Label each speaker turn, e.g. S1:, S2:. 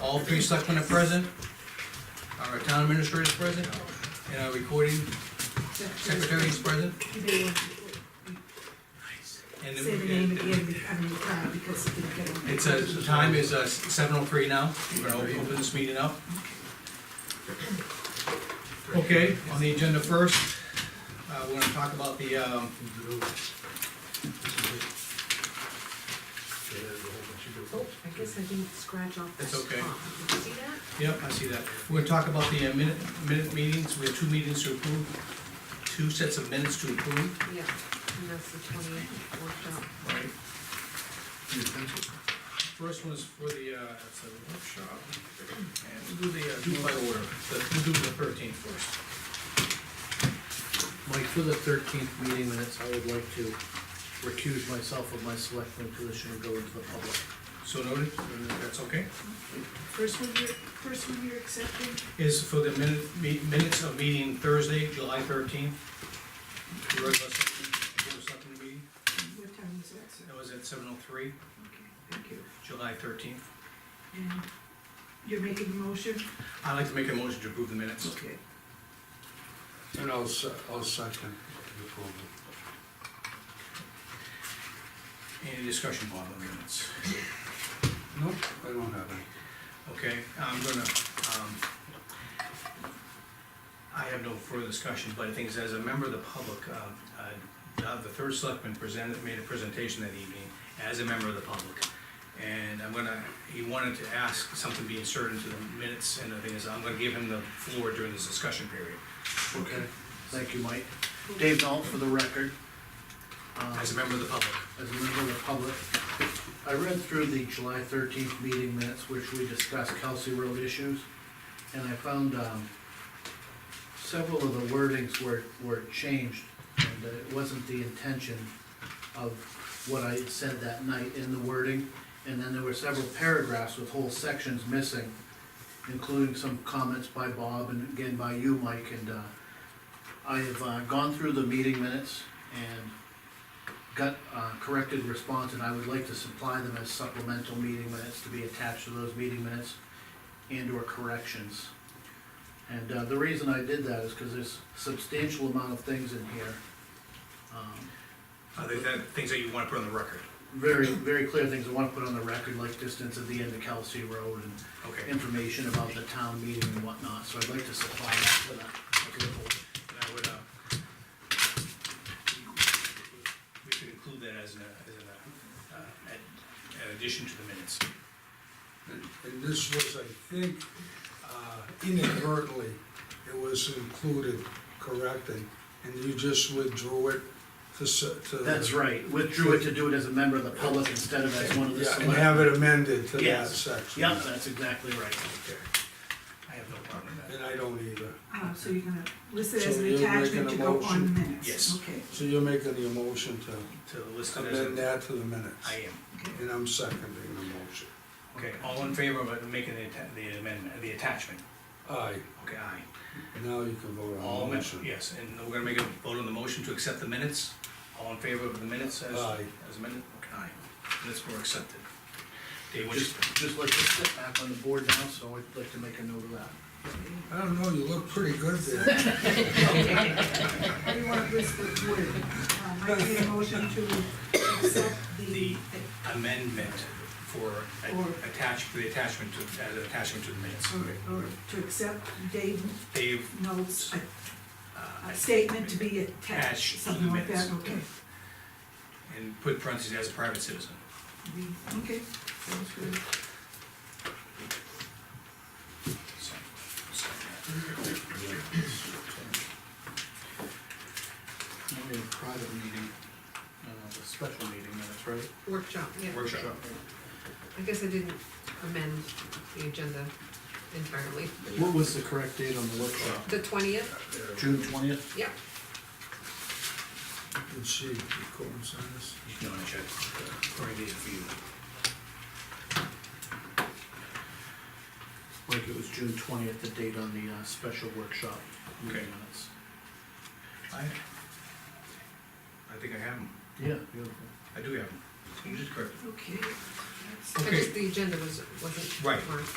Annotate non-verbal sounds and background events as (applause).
S1: all three selectmen are present, our town administrator is present, and our recording secretary is present.
S2: They
S1: And
S2: say the name
S1: it-
S2: again, I mean, uh, because it didn't get on.
S1: It's, uh, the time is seven oh three now, we're gonna open this meeting up. Okay, on the agenda first, uh, we're gonna talk about the, um,
S2: Oh, I guess I didn't scratch off the
S1: It's
S2: top.
S1: okay.
S2: You See that?
S1: Yep, I see that. We're gonna talk about the uh, minute, minute meetings, we have two meetings to approve, two sets of minutes to approve,
S2: Yeah, and that's the twentieth workshop.
S1: right? First one is for the, uh, it's a workshop, and we'll do the, uh, do by order, The- we'll do the thirteenth first.
S3: Mike, for the thirteenth meeting minutes, I would like to recuse myself of my selectman position and go into the public.
S1: So noted, uh, that's okay?
S2: First one you're, first one you're accepting?
S1: Is for the minute, me- minutes of meeting Thursday, July thirteenth. The regular select- regular selectmen meeting,
S2: What time was that, sir?
S1: that was at seven oh three,
S2: Okay, thank you.
S1: July thirteenth.
S2: And you're making a motion?
S1: I'd like to make a motion to approve the minutes.
S2: Okay.
S4: And I'll, se- I'll second the approval.
S1: Any discussion on the minutes?
S4: Nope, I don't have any.
S1: Okay, I'm gonna, um, I have no further discussion, but the thing is, as a member of the public, uh, uh, uh, the third selectman presented, made a presentation that evening as a member of the public. And I'm gonna, he wanted to ask something be inserted into the minutes, and the thing is, I'm gonna give him the floor during this discussion period.
S4: Okay.
S3: Thank you, Mike. Dave Knoll, for the record. Um,
S1: As a member of the public,
S3: as a member of the public. I read through the July thirteenth meeting minutes, which we discussed Kelsey Road issues, and I found, um, several of the wordings were, were changed, and uh, it wasn't the intention of what I had said that night in the wording. And then there were several paragraphs with whole sections missing, including some comments by Bob and again by you, Mike, and, uh, I have, uh, gone through the meeting minutes and got uh, corrected response, and I would like to supply them as supplemental meeting minutes to be attached to those meeting minutes and/or corrections. And uh, the reason I did that is because there's substantial amount of things in here. um,
S1: uh, that, that, things that you wanna put on the record,
S3: Very, very clear things I want to put on the record, like distance at the end of Kelsey Road and
S1: okay? And
S3: information about the town meeting and whatnot, so I'd like to supply that to the- to the board.
S1: I would, uh, we could include that as an, uh, as an, uh, uh, ad- an addition to the minutes.
S4: And and this was, I think, uh, inadvertently, it was included, corrected, and you just withdrew it to. se- to-
S3: That's right, withdrew it to do it as a member of the public instead of as one of the
S4: Yeah,
S3: select.
S4: and have it amended to that
S3: Yes.
S4: section.
S3: Yep, that's exactly right.
S4: Okay.
S1: I have no problem with that.
S4: And I don't either.
S2: Uh, so you're gonna list it as
S4: So
S2: an
S4: you're making
S2: attachment
S4: a
S2: to go on
S4: motion?
S2: the minutes?
S1: Yes.
S2: Okay,
S4: So you're making the motion to
S1: To list it as
S4: amend
S1: a,
S4: that to the minutes?
S1: I am.
S2: okay.
S4: And I'm seconding the motion.
S1: Okay, all in favor of making the atta- the amendment, the attachment?
S4: Aye.
S1: Okay, aye.
S4: Now you can vote
S1: All,
S4: on the
S1: men-
S4: motion.
S1: yes, and we're gonna make a vote on the motion to accept the minutes. All in favor of the minutes as,
S4: Aye.
S1: as amended? Okay, aye. Minutes were accepted. Dave, what you-
S3: Just, just like to sit back on the board now, so I'd like to make a note of that.
S4: I don't know, you look pretty good
S3: (laughs)
S4: there.
S2: I do want to list the word. Um, I made a motion to accept the,
S1: the amendment for, a-
S2: Or-
S1: attach, for the attachment to, as an attachment to the minutes.
S2: or, or to accept Dave
S1: Dave,
S2: Knoll's uh,
S1: uh,
S2: uh, statement to be attached,
S1: Attached to the
S2: something like that,
S1: minutes.
S2: okay.
S1: and put parentheses as a private citizen.
S2: The- Okay, sounds good.
S1: So, so-
S3: Only a private meeting, uh, a special meeting, that's right.
S5: Workshop, yeah.
S1: Workshop.
S5: I guess I didn't amend the agenda entirely.
S3: What was the correct date on the workshop?
S5: The twentieth,
S3: June twentieth?
S5: yeah,
S4: Did she coincide this?
S1: No, I should. According to these for you.
S3: Like it was June twentieth, the date on the, uh, special workshop meeting
S1: Okay.
S3: minutes.
S1: I, I think I have them.
S3: Yeah, beautiful.
S1: I do have them. You just correct.
S2: Okay, that's-
S5: I
S1: Okay.
S5: just, the agenda was, wasn't
S1: Right.
S5: marked.